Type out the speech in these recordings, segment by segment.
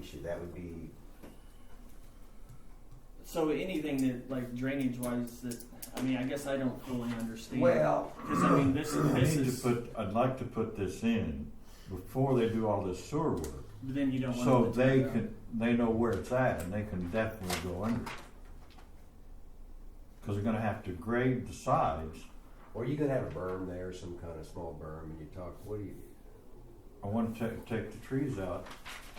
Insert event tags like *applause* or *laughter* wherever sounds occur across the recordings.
issue. That would be So anything that like drainage wise, that I mean, I guess I don't fully understand. well. because I mean, this I this need to is put, I'd like to put this in before they do all this sewer work. but then you don't want So them to they tear it can, they know where it's at and they can definitely go under. it. Cause they're gonna have to grade the sides. Or you could have a berm there, some kind of small berm, and you talk. What do you? I wanna take, take the trees out,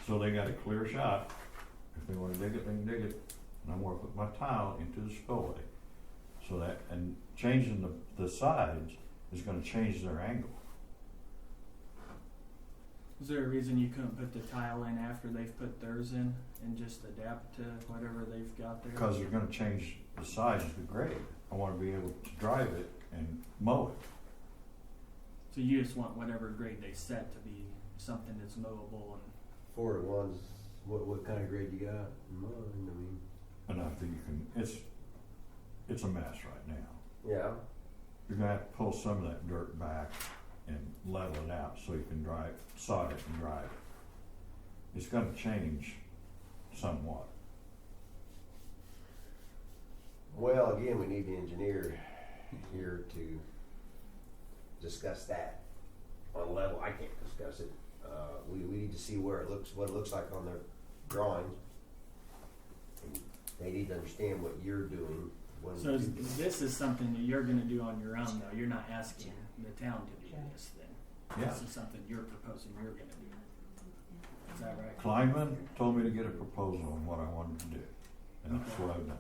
so they got a clear shot. If they wanna dig it, they can dig it. And I'm gonna put my tile into the spillway. So that, and changing the, the sides is gonna change their angle. out. Is there a reason you couldn't put the tile in after they've put theirs in and just adapt to whatever they've got there? Because they're gonna change the size of the grade. I wanna be able to drive it and mow it. so you just want whatever grade they set to be something that's mowable and Four to ones. What what kind of grade you got? in mind? I mean, And I think you can, it's, it's a mess right now. yeah. You're gonna have to pull some of that dirt back and level it out so you can drive, sod it and drive it. It's gonna change somewhat. Well, again, we need the engineer here to discuss that on level. I can't discuss it. Uh, we, we need to see where it looks, what it looks like on their drawings. And They need to understand what you're doing. when so you is, do this. this is something that you're going to do on your own though. You're not asking the town to do this then. Yeah, This is something you're proposing you're going to do. Is that right? Kleinman told me to get a proposal on what I wanted to do, and that's what I've done.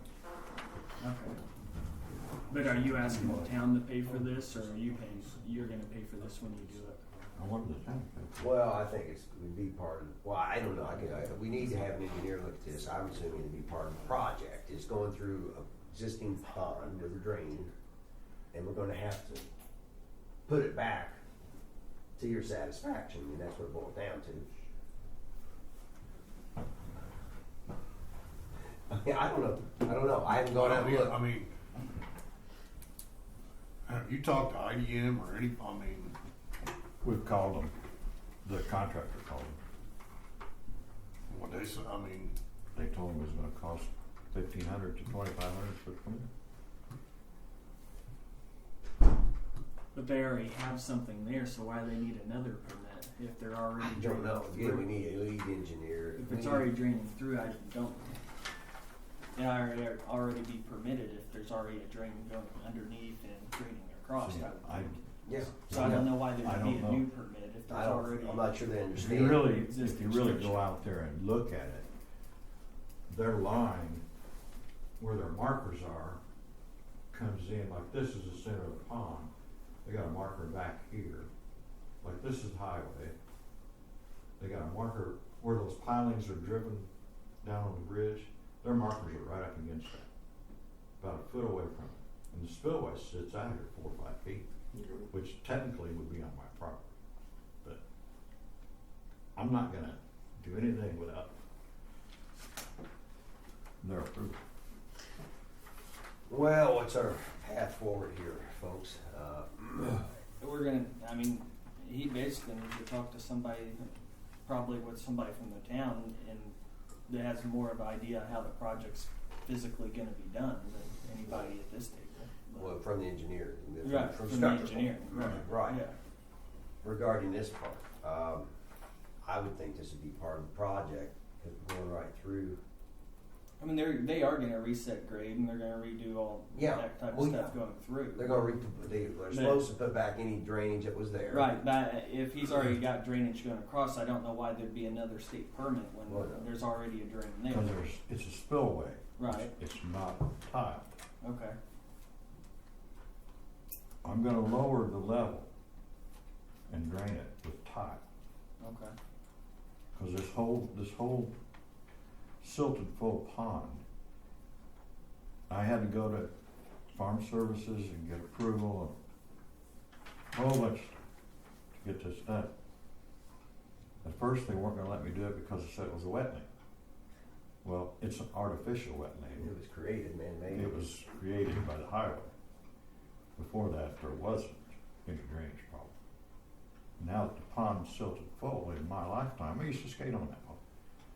Okay. But are you asking the town to pay for this, or are you paying, you're gonna pay for this when you do it? I wanted the town to pay for it. Well, I think it's, would be part of, well, I don't know, I could, I, we need to have an engineer look at this, I'm assuming it'd be part of the project, it's going through a existing pond with a drain, and we're gonna have to put it back to your satisfaction, I mean, that's what it boils down to. Yeah, I don't know, I don't know, I haven't gone out and I looked, mean, have you talked to IDM or any, I mean, We've called them, the contractor called them. what they said, I mean, They told me it was gonna cost fifteen hundred to twenty-five hundred for the permit. But they already have something there, so why they need another permit if they're already I don't draining know, again, we through? need a lead engineer. If We it's need- already draining through, I don't, it already, already be permitted if there's already a drain going underneath and draining across, See, I I- would think. Yeah, So I don't know why I there'd don't be a know. new permit if I there's already. don't, I'm not sure they If understand. you really, if you Existing really go structure. out there and look at it, their line, where their markers are, comes in, like this is the center of the pond, they got a marker back here, like this is highway. They got a marker where those pilings are driven down on the bridge, their markers are right up against that, about a foot away from it. And the spillway sits out here four or five feet, which technically would be on my property. I'm not gonna do anything without their approval. Well, what's our path forward here, folks? Uh, We're gonna, I mean, he basically needs to talk to somebody, probably with somebody from the town and that has more of an idea how the project's physically gonna be done than anybody at this table. well, from the engineer, from, Right, from from the Structural. engineer, right. right. Yeah, Regarding this part, um, I would think this would be part of the project because we're going right through. I mean, they're, they are gonna reset grade and they're gonna redo all Yeah, that type well, of stuff yeah. going through. They're going to re- they, they're They- supposed to put back any drainage that was there. Right, but if *clears throat* he's already got drainage going across, I don't know why there'd be another state permit Well, when no. there's already a drain there. Cause there's, it's a spillway. Right, It's not tiled. okay, I'm gonna lower the level and drain it with tile. okay. Cause this whole, this whole silted full pond. I had to go to farm services and get approval and a whole bunch to get this done. At first, they weren't gonna let me do it because they said it was a wetland. Well, it's an artificial And wetland. it was created man-made. It was created by the highway. Before that, there wasn't any drainage problem. Now that the pond's silted full, in my lifetime, I used to skate on that pond.